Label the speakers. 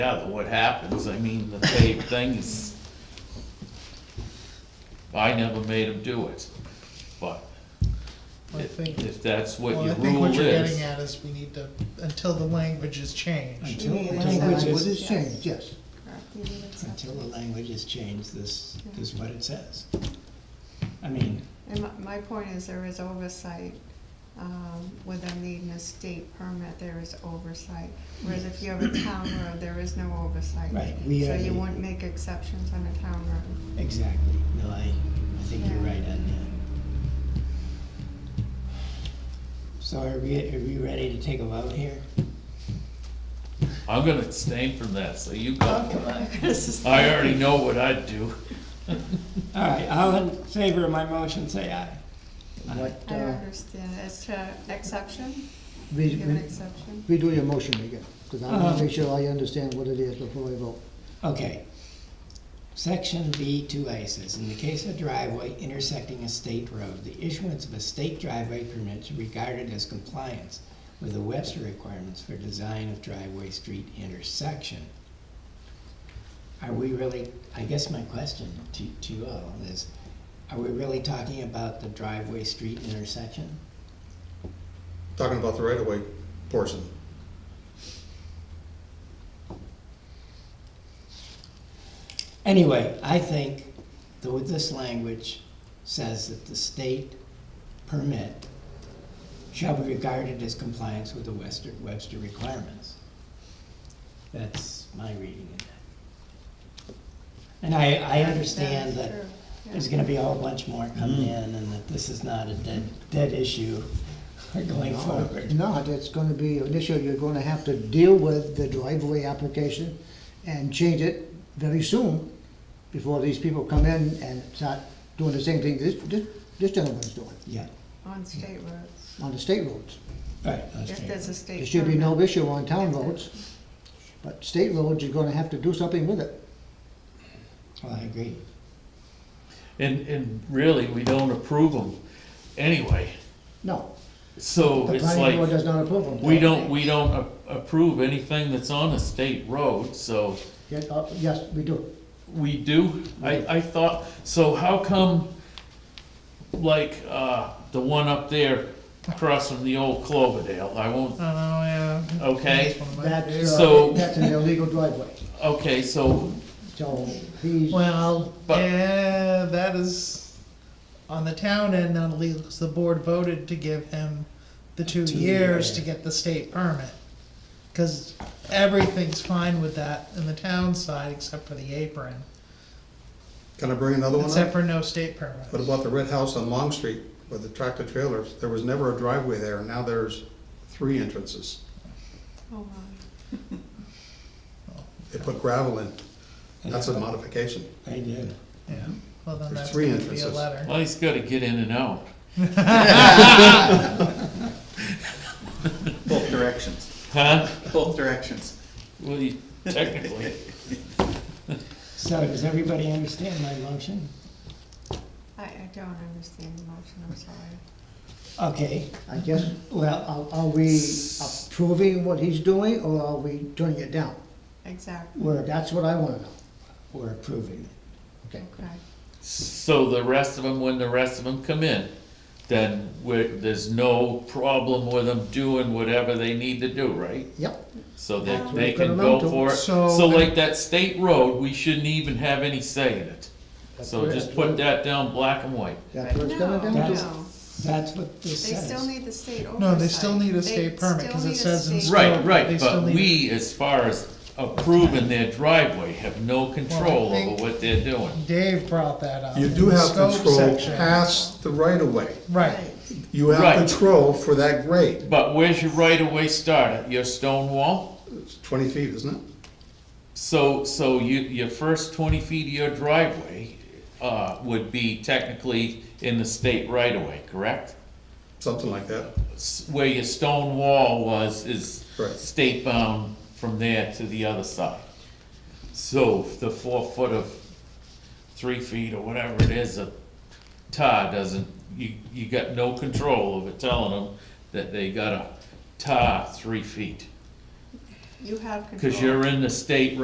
Speaker 1: out what happens, I mean, the same thing is, I never made him do it, but
Speaker 2: I
Speaker 1: if
Speaker 2: think,
Speaker 1: if that's what
Speaker 2: well, I
Speaker 1: your
Speaker 2: think
Speaker 1: rule
Speaker 2: what you're getting
Speaker 1: is,
Speaker 2: at is we need to, until the language is changed.
Speaker 3: Until,
Speaker 4: Yeah,
Speaker 3: until the
Speaker 4: that's-
Speaker 3: language is
Speaker 4: yes.
Speaker 3: changed, yes.
Speaker 4: Correct, you need to
Speaker 3: Until the
Speaker 4: separate.
Speaker 3: language is changed, this is what it says. I mean,
Speaker 4: And my, my point is there is oversight, um, with them needing a state permit, there is oversight. Whereas if you have a town road, there is no oversight.
Speaker 3: Right, we
Speaker 4: So
Speaker 3: are
Speaker 4: you
Speaker 3: the-
Speaker 4: wouldn't make exceptions on a town road.
Speaker 3: exactly, no, I, I think you're right on that. So are we, are we ready to take a vote here?
Speaker 1: I'm gonna abstain from that, so you go. for it.
Speaker 4: This is-
Speaker 1: I already know what I'd do.
Speaker 3: All right, all in favor of my motion, say aye. What,
Speaker 4: I don't understand, as to exception,
Speaker 5: Re-
Speaker 4: give an
Speaker 5: re-
Speaker 4: exception,
Speaker 5: Redo your motion again, because I want
Speaker 3: Uh-huh.
Speaker 5: to make sure I understand what it is before I vote.
Speaker 3: Okay. Section B two A says, in the case of driveway intersecting a state road, the issuance of a state driveway permit should be regarded as compliance with the Webster requirements for design of driveway street intersection. Are we really, I guess my question to, to you all is, are we really talking about the driveway street intersection?
Speaker 6: Talking about the right-of-way portion.
Speaker 3: Anyway, I think that with this language says that the state permit shall be regarded as compliance with the Webster, Webster requirements. That's my reading of that. And I, I understand that
Speaker 4: That is true, yeah.
Speaker 3: there's gonna be a whole bunch more coming
Speaker 6: Mm-hmm.
Speaker 3: in and that this is not a dead, dead issue going forward.
Speaker 5: No, that's gonna be, initially, you're gonna have to deal with the driveway application and change it very soon before these people come in and start doing the same thing this, this, this gentleman's doing
Speaker 3: Yeah,
Speaker 4: on state roads,
Speaker 5: on the state roads.
Speaker 3: right, that's
Speaker 4: if
Speaker 3: true.
Speaker 4: there's a state
Speaker 5: There
Speaker 4: permit.
Speaker 5: should be no issue on town roads, but state roads, you're gonna have to do something with it.
Speaker 3: Well, I agree.
Speaker 1: And, and really, we don't approve them anyway,
Speaker 5: No,
Speaker 1: so
Speaker 5: the
Speaker 1: it's
Speaker 5: planning board
Speaker 1: like,
Speaker 5: does not approve them.
Speaker 1: we don't, we don't a- approve anything that's on a state road, so.
Speaker 5: Yeah, uh, Yes, we do.
Speaker 1: We do, I, I thought, so how come, like, uh, the one up there across from the old Cloverdale, I
Speaker 2: I
Speaker 1: won't,
Speaker 2: don't know, yeah.
Speaker 1: Okay.
Speaker 2: That's one of my
Speaker 5: That's,
Speaker 2: days.
Speaker 1: So-
Speaker 5: uh, that's an illegal driveway,
Speaker 1: okay, so,
Speaker 5: so he's.
Speaker 2: Well,
Speaker 1: But-
Speaker 2: yeah, that is on the town end, not illegal, 'cause the board voted to give him the two
Speaker 3: Two
Speaker 2: years
Speaker 3: year.
Speaker 2: to get the state permit. Cause everything's fine with that in the town side, except for the apron,
Speaker 6: Can I bring another one
Speaker 2: except
Speaker 6: up?
Speaker 2: for no state permit.
Speaker 6: What about the red house on Long Street with the tractor trailers? There was never a driveway there, and now there's three entrances.
Speaker 4: Oh, wow.
Speaker 6: They put gravel in. That's a modification.
Speaker 3: I do.
Speaker 2: Yeah, well, then
Speaker 6: There's
Speaker 2: that's
Speaker 6: three
Speaker 2: gonna be a
Speaker 6: entrances.
Speaker 2: letter.
Speaker 1: well, he's gotta get in and out.
Speaker 7: Both directions,
Speaker 1: Huh?
Speaker 7: both directions.
Speaker 1: Well, he- technically,
Speaker 3: So does everybody understand my motion?
Speaker 4: I, I don't understand the motion, I'm sorry.
Speaker 3: Okay,
Speaker 5: I guess,
Speaker 3: well, uh,
Speaker 5: are, are we approving what he's doing, or are we turning it down?
Speaker 4: Exactly,
Speaker 3: we're,
Speaker 5: That's what I wanna know.
Speaker 3: we're approving it.
Speaker 5: Okay.
Speaker 4: okay.
Speaker 1: so the rest of them, when the rest of them come in, then we there's no problem with them doing whatever they need to do, right?
Speaker 5: Yep,
Speaker 1: So that
Speaker 4: Um,
Speaker 1: they
Speaker 5: We've got
Speaker 1: can
Speaker 5: a
Speaker 1: go
Speaker 5: mountain,
Speaker 1: for it,
Speaker 2: so-
Speaker 1: so like that state road, we shouldn't even have any say in it. So
Speaker 5: correct.
Speaker 1: just put that down black and white.
Speaker 5: that's what it's
Speaker 4: No,
Speaker 5: coming down to.
Speaker 4: no,
Speaker 3: That's what this
Speaker 4: they still
Speaker 3: says.
Speaker 4: need the state oversight.
Speaker 2: No, they still need a state
Speaker 4: They
Speaker 2: permit,
Speaker 4: still
Speaker 2: 'cause it
Speaker 4: need a
Speaker 2: says in
Speaker 4: state-
Speaker 2: state-
Speaker 1: Right,
Speaker 2: They
Speaker 1: right,
Speaker 2: still
Speaker 1: but
Speaker 2: need-
Speaker 1: we, as far as approving their driveway, have no control
Speaker 2: think-
Speaker 1: over what they're doing.
Speaker 2: Dave brought that up.
Speaker 6: You
Speaker 2: in
Speaker 6: do
Speaker 2: the
Speaker 6: have
Speaker 2: scope
Speaker 6: control
Speaker 2: section.
Speaker 6: past the right-of-way.
Speaker 2: Right,
Speaker 6: You
Speaker 1: Right.
Speaker 6: have control for that grade.
Speaker 1: But where's your right of way start? At Your stone wall?
Speaker 6: It's twenty feet, isn't it?
Speaker 1: So, so you, your first twenty feet of your driveway, uh, would be technically in the state right of way, correct?
Speaker 6: Something like that.
Speaker 1: S- Where your stone wall was, is
Speaker 6: Right.
Speaker 1: state bound from there to the other side. So the four foot of three feet or whatever it is, a tar doesn't, you, you got no control over telling them that they gotta tar three feet.
Speaker 4: You have control. Oh.
Speaker 1: Cause you're in the state